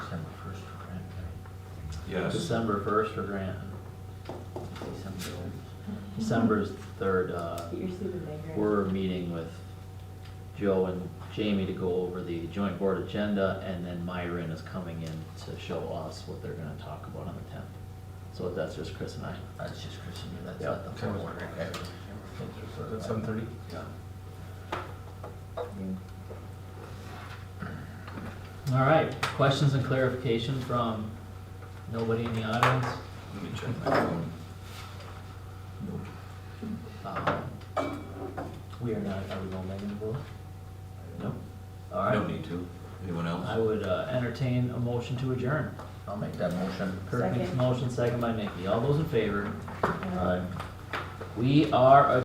Yes. December first for Grant. December, December's third, uh, Get your suit in there. we're meeting with Joe and Jamie to go over the joint board agenda, and then Myron is coming in to show us what they're gonna talk about on the tenth. So that's just Chris and I. That's just Chris and you, that's Yeah. not the full board, okay? At seven thirty? Yeah. All right, questions and clarification from nobody in the audience? Let me check my phone. Um, We are not, are we going back into vote? No, All I right. don't need to. Anyone I else? would uh, entertain a motion to adjourn. I'll make that motion. Kirk makes a Second. uh, motion, second by Nikki. All those in favor? Aye. We are adjourned.